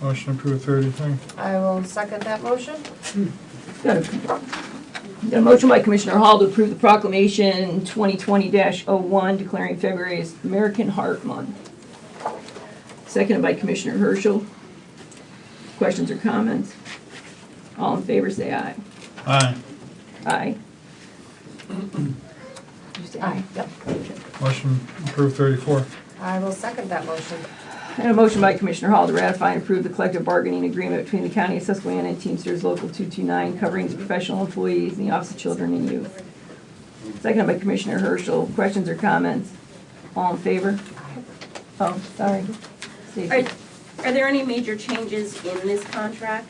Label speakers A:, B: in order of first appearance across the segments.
A: Motion approved thirty-three.
B: I will second that motion.
C: Got a got a motion by Commissioner Hall to approve the proclamation 2020-01 declaring February as American Heart Month. Seconded by Commissioner Herschel. Questions or comments? All in favor, say aye.
A: Aye.
C: Aye. You say aye.
B: Yep.
A: Motion approved thirty-four.
B: I will second that motion.
C: And a motion by Commissioner Hall to ratify and approve the collective bargaining agreement between the County of Susquehanna and Teamsters Local 229 covering the professional employees in the Office of Children and Youth. Seconded by Commissioner Herschel. Questions or comments? All in favor? Oh, sorry.
D: Are,
C: Stacy.
D: are there any major changes in this contract?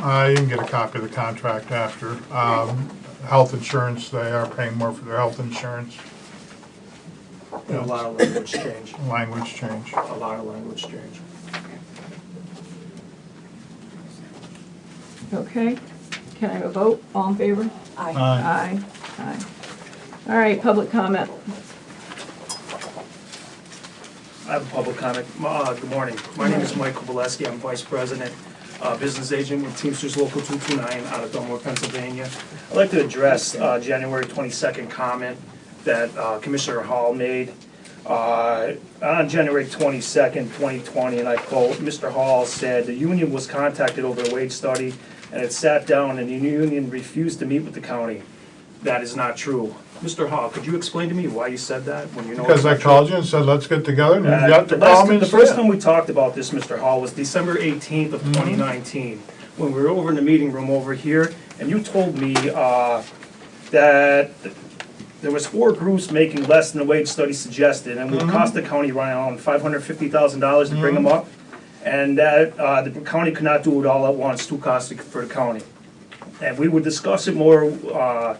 A: Uh, you can get a copy of the contract after. Um, health insurance, they are paying more for their health insurance.
E: And A lot of language change,
A: Language change.
E: a lot of language change.
C: Okay. Can I have a vote? All in favor?
B: Aye.
A: Aye.
C: Aye. Aye. All right, public comment.
E: I have a public comment. Uh, Good morning. My name is Michael Valesky. I'm Vice President, uh, Business Agent with Teamsters Local 229 out of Dunmore, Pennsylvania. I'd like to address uh, January 22nd comment that uh, Commissioner Hall made. Uh, On January 22nd, 2020, and I quote, Mr. Hall said, "The union was contacted over a wage study, and it sat down, and the union refused to meet with the county." That is not true. Mr. Hall, could you explain to me why you said that when you know? it's
A: Because I
E: not true?
A: called you and said, let's get together, and you
E: Uh,
A: got
E: The
A: to call
E: last,
A: me
E: the
A: and
E: first
A: say
E: time
A: it.
E: we talked about this, Mr. Hall, was December eighteenth of twenty nineteen, when we were over in the meeting room over here, and you told me, uh, that there was four groups making less than the wage study suggested, and it would cost the county around five hundred fifty thousand dollars to bring them up, and that, uh, the county could not do it all at once, too costly for the county. And we would discuss it more, uh,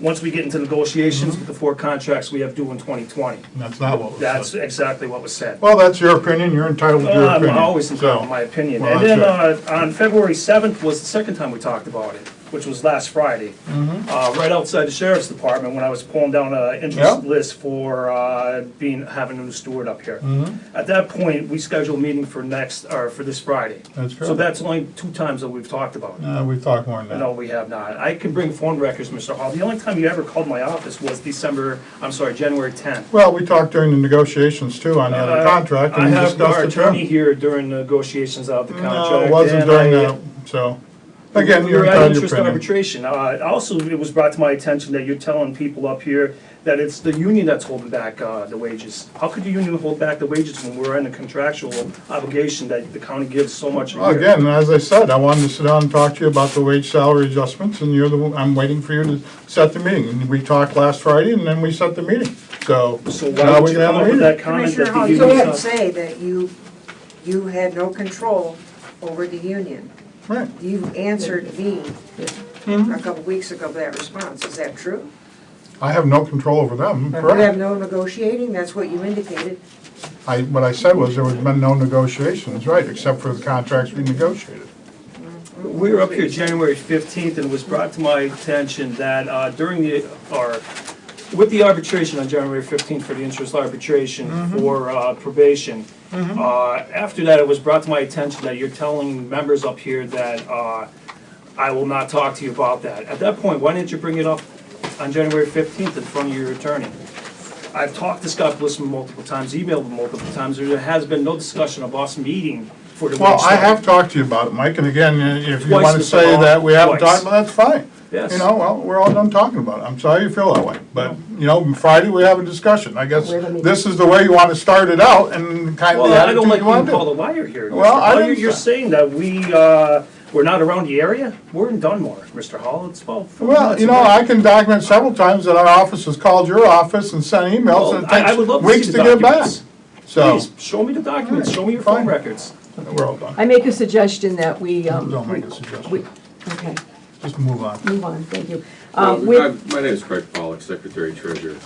E: once we get into negotiations with the four contracts we have due in twenty twenty.
A: And That's not what was
E: That's
A: said.
E: exactly what was said.
A: Well, that's your opinion, you're entitled to your
E: Uh,
A: opinion.
E: I'm always entitled to
A: So,
E: my opinion.
A: Well,
E: And then, uh, on February seventh was the second time we talked about it, which was last Friday.
A: Mm-hmm.
E: Uh, right outside the sheriff's department, when I was pulling down a
A: Yeah.
E: interest list for, uh, being, having a new steward up here.
A: Mm-hmm.
E: At that point, we scheduled a meeting for next, or for this Friday.
A: That's
E: So
A: correct.
E: that's only two times that we've talked about it.
A: Uh, we talked more than
E: No,
A: that.
E: we have not. I can bring phone records, Mr. Hall. The only time you ever called my office was December, I'm sorry, January tenth.
A: Well, we talked during the negotiations too on the other
E: Uh,
A: contract, and we discussed it.
E: I have our
A: then.
E: attorney here during negotiations of the contract.
A: No, it wasn't
E: and
A: during
E: I-
A: that, so, again,
E: we
A: you're
E: were at
A: entitled to
E: interest
A: your opinion.
E: arbitration. Uh, Also, it was brought to my attention that you're telling people up here that it's the union that's holding back uh, the wages. How could the union hold back the wages when we're in a contractual obligation that the county gives so much a
A: Well,
E: year?
A: Again, as I said, I wanted to sit down and talk to you about the wage salary adjustments, and you're the, one- I'm waiting for you to set the meeting. And we talked last Friday, and then we set the meeting, so.
E: So
A: now
E: why
A: we
E: would you
A: can have the
E: come up with
A: meeting.
E: that comment that
F: Commissioner
E: the
F: Hall,
E: union?
F: you can't
E: uh,
F: say that you, you had no control over the union.
A: Right,
F: You answered me a couple weeks ago with that response, is that true?
A: I have no control over them,
F: You have
A: correct?
F: no negotiating, that's what you indicated.
A: I, what I said was there was been no negotiations, right, except for the contracts we negotiated.
E: We were up here January 15th, and it was brought to my attention that uh, during the, or with the arbitration on January 15th for the interest arbitration
A: Mm-hmm.
E: for uh, probation, uh, after that, it was brought to my attention that you're telling members up here that uh, I will not talk to you about that. At that point, why didn't you bring it up on January 15th in front of your attorney? I've talked to Scott Blissman multiple times, emailed him multiple times, there has been no discussion of us meeting for the.
A: Well,
E: wage
A: I
E: study.
A: have talked to you about it, Mike, and again, if you
E: Twice,
A: wanna
E: Mr.
A: say
E: Hall,
A: that we haven't
E: twice.
A: talked, well, that's fine.
E: Yes.
A: You know, well, we're all done talking about it, I'm sorry you feel that way, but, you know, Friday, we have a discussion, I guess
C: Wait a minute.
A: this is the way you wanna start it out, and kind of
E: Well,
A: the
E: I don't
A: attitude
E: like
A: you
E: being
A: wanna
E: called a
A: do.
E: liar here.
A: Well,
E: Mr.
A: I
E: Hall.
A: didn't
E: You're- You're
A: say-
E: saying that we, uh, we're not around the area? We're in Dunmore, Mr. Hall, it's about. four
A: Well,
E: minutes
A: you know,
E: away.
A: I can document several times that our office has called your office and sent emails, and
E: Well, I- I would
A: it
E: love
A: takes
E: to see
A: weeks
E: the
A: to get back,
E: documents.
A: so,
E: Please, show me the documents, show me your
A: Fine.
E: phone records.
A: we're all done,
C: I make a suggestion that we, um.
A: Don't make a
C: we-
A: suggestion.
C: we- Okay,
A: just move on.
C: move on, thank you.
G: Well,
C: Um, with-
G: I- My name is Craig Pollock, Secretary Treasurer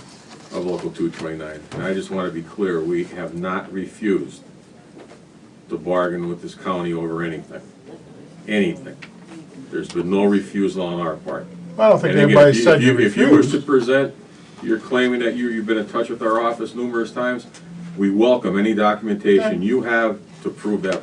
G: of Local 229, and I just want to be clear, we have not refused to bargain with this county over anything, anything. There's been no refusal on our part.
A: I don't think
G: And again,
A: anybody
G: if you-
A: said
G: if
A: you
G: If you wish to
A: refused.
G: present, you're claiming that you, you've been in touch with our office numerous times, we welcome any documentation you have to prove that